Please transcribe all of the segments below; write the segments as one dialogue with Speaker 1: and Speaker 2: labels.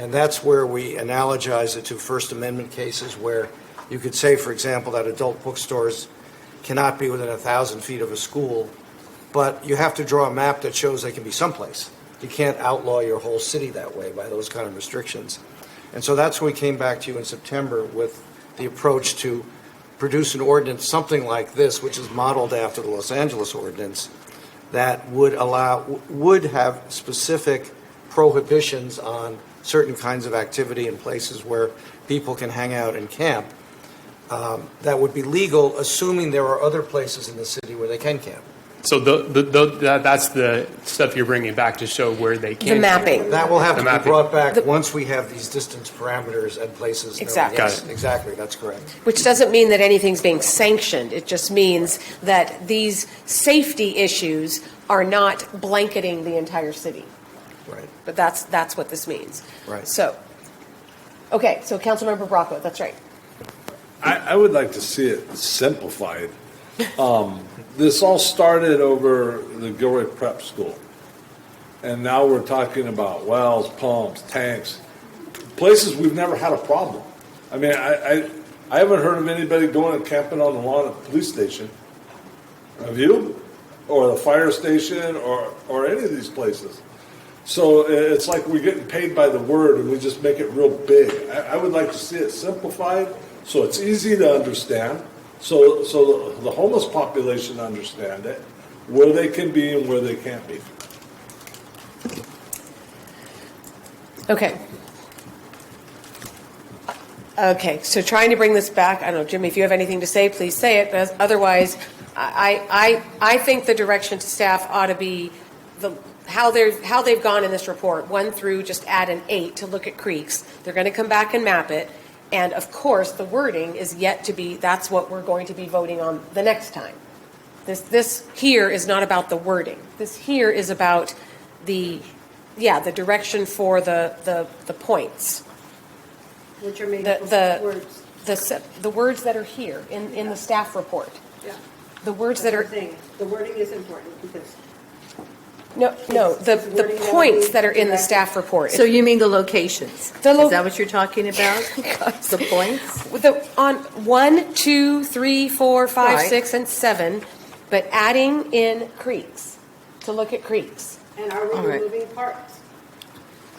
Speaker 1: And that's where we analogize it to First Amendment cases where you could say, for example, that adult bookstores cannot be within a thousand feet of a school, but you have to draw a map that shows they can be someplace. You can't outlaw your whole city that way by those kind of restrictions. And so that's when we came back to you in September with the approach to produce an ordinance, something like this, which is modeled after the Los Angeles ordinance, that would allow, would have specific prohibitions on certain kinds of activity in places where people can hang out and camp um, that would be legal, assuming there are other places in the city where they can camp.
Speaker 2: So the, the, the, that, that's the stuff you're bringing back to show where they can.
Speaker 3: The mapping.
Speaker 1: That will have
Speaker 2: The
Speaker 1: to be
Speaker 2: mapping.
Speaker 1: brought back
Speaker 3: The-
Speaker 1: once we have these distance parameters and places. known.
Speaker 3: Exactly.
Speaker 2: Got
Speaker 1: Yes,
Speaker 2: it.
Speaker 1: Exactly, that's correct.
Speaker 3: Which doesn't mean that anything's being sanctioned. It just means that these safety issues are not blanketing the entire city.
Speaker 1: Right.
Speaker 3: But that's, that's what this means.
Speaker 1: Right.
Speaker 3: So, okay, so Councilmember Bracco, that's right.
Speaker 4: I, I would like to see it simplified. Um, this all started over the Gilroy Prep School. And now we're talking about wells, pumps, tanks, places we've never had a problem. I mean, I, I, I haven't heard of anybody going and camping on the lawn at the police station. Have you? Or the fire station or, or any of these places. So i- it's like we're getting paid by the word and we just make it real big. I, I would like to see it simplified so it's easy to understand, so, so the homeless population understand it, where they can be and where they can't be.
Speaker 3: Okay. Okay, so trying to bring this back, I don't know, Jimmy, if you have anything to say, please say it, but otherwise, I, I, I think the direction to staff ought to be the, how they're, how they've gone in this report, one through just add an eight to look at creeks. They're gonna come back and map it, and of course, the wording is yet to be, that's what we're going to be voting on the next time. This, this here is not about the wording. This here is about the, yeah, the direction for the, the, the points.
Speaker 5: Which are made
Speaker 3: The,
Speaker 5: up of
Speaker 3: the,
Speaker 5: words.
Speaker 3: the, se- the words that are here in, in the staff report.
Speaker 5: Yeah.
Speaker 3: The words that
Speaker 5: That's what
Speaker 3: are,
Speaker 5: I'm saying. The wording is important because
Speaker 3: no, no, the,
Speaker 5: It's wording
Speaker 3: the
Speaker 5: that we
Speaker 3: points that are in the
Speaker 5: direct-
Speaker 3: staff report.
Speaker 6: So you mean the locations?
Speaker 3: The lo-
Speaker 6: Is that what you're talking about? The points?
Speaker 3: With the, on one, two, three, four, five,
Speaker 6: Right.
Speaker 3: six, and seven, but adding in creeks, to look at creeks.
Speaker 5: and are we
Speaker 6: All right.
Speaker 5: removing parks?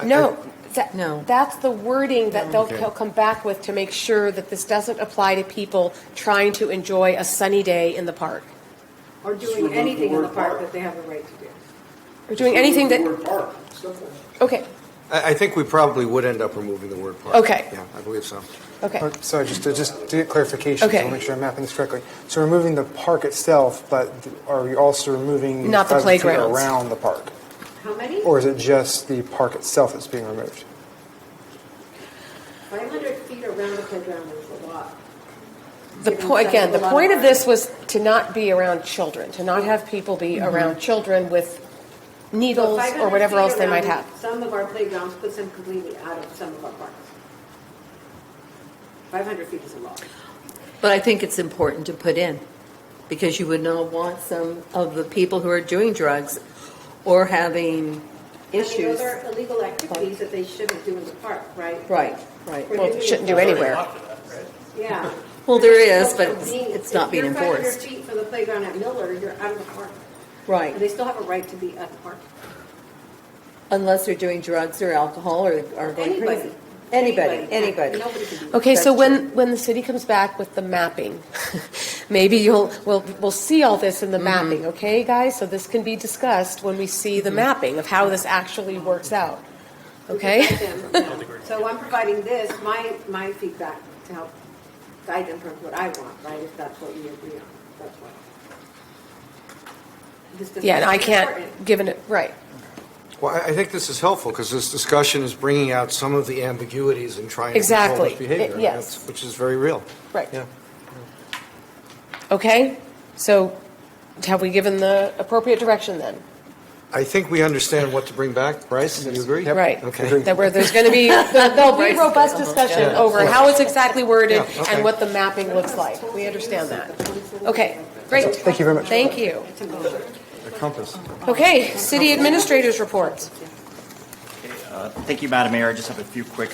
Speaker 3: No, that,
Speaker 6: No.
Speaker 3: that's the wording that they'll, they'll come back with to make sure that this doesn't apply to people trying to enjoy a sunny day in the park.
Speaker 5: Or doing anything in the park that they have a right to do?
Speaker 3: Or doing anything that, okay,
Speaker 1: I, I think we probably would end up removing the word park.
Speaker 3: Okay.
Speaker 1: Yeah, I believe so.
Speaker 3: okay.
Speaker 7: Or- Sorry, just to, just to get clarification, so
Speaker 3: Okay.
Speaker 7: I'll make sure I'm mapping this correctly. So removing the park itself, but th- are you also removing?
Speaker 3: Not the
Speaker 7: 500 feet
Speaker 3: playgrounds.
Speaker 7: Around the park?
Speaker 5: How many?
Speaker 7: Or is it just the park itself that's being removed?
Speaker 5: Five hundred feet around the playground is a lot.
Speaker 3: The
Speaker 5: Given
Speaker 3: po-
Speaker 5: that
Speaker 3: again, the
Speaker 5: there's a lot
Speaker 3: point of
Speaker 5: of-
Speaker 3: this was to not be around children, to not have people be around children with
Speaker 5: So
Speaker 3: needles
Speaker 5: 500
Speaker 3: or whatever
Speaker 5: feet
Speaker 3: else they might
Speaker 5: around
Speaker 3: have.
Speaker 5: Some of our playgrounds puts them completely out of some of our parks. Five hundred feet is a lot.
Speaker 6: But I think it's important to put in, because you would not want some of the people who are doing drugs or having
Speaker 5: And
Speaker 6: issues.
Speaker 5: those are illegal activities that they shouldn't do in the park, right?
Speaker 6: Right, right.
Speaker 5: We're
Speaker 3: Well,
Speaker 5: doing
Speaker 3: shouldn't
Speaker 5: it
Speaker 3: do
Speaker 5: for-
Speaker 3: anywhere.
Speaker 5: Yeah.
Speaker 6: Well, there is, but
Speaker 5: So
Speaker 6: it's-
Speaker 5: being-
Speaker 6: it's not being
Speaker 5: If you're
Speaker 6: enforced.
Speaker 5: 500 feet from the playground at Miller, you're out of the park.
Speaker 6: Right.
Speaker 5: And they still have a right to be at the park.
Speaker 6: Unless they're doing drugs or alcohol or are going
Speaker 5: Anybody.
Speaker 6: crazy. Anybody, anybody.
Speaker 5: Nobody can do that.
Speaker 3: Okay, so
Speaker 6: That's
Speaker 3: when, when the city comes back with the mapping, maybe you'll, we'll, we'll see all this in the mapping, okay, guys? So this can be discussed when we see the mapping of how this actually works out, okay?
Speaker 5: So I'm providing this, my, my feedback to help guide them towards what I want, right? If that's what we agree on, that's what. This doesn't
Speaker 3: Yeah, and I
Speaker 5: make it
Speaker 3: can't,
Speaker 5: important.
Speaker 3: given it, right.
Speaker 1: Well, I, I think this is helpful because this discussion is bringing out some of the ambiguities and trying to control
Speaker 3: Exactly.
Speaker 1: this behavior.
Speaker 3: It- yes.
Speaker 1: that's- Which is very real.
Speaker 3: Right.
Speaker 1: Yeah.
Speaker 3: Okay, so have we given the appropriate direction then?
Speaker 1: I think we understand what to bring back. Bryce, do you agree?
Speaker 3: Right.
Speaker 1: Okay.
Speaker 3: That where there's going to be, there'll be
Speaker 6: Right.
Speaker 3: robust discussion
Speaker 1: Yeah.
Speaker 3: over how it's exactly worded
Speaker 1: Yeah, okay.
Speaker 3: and what the mapping looks like. We understand that. Okay, great.
Speaker 7: Thank you very much.
Speaker 3: Thank you.
Speaker 1: The compass.
Speaker 3: Okay, city administrators reports.
Speaker 8: Uh, Thank you, Madam Mayor. I just have a few quick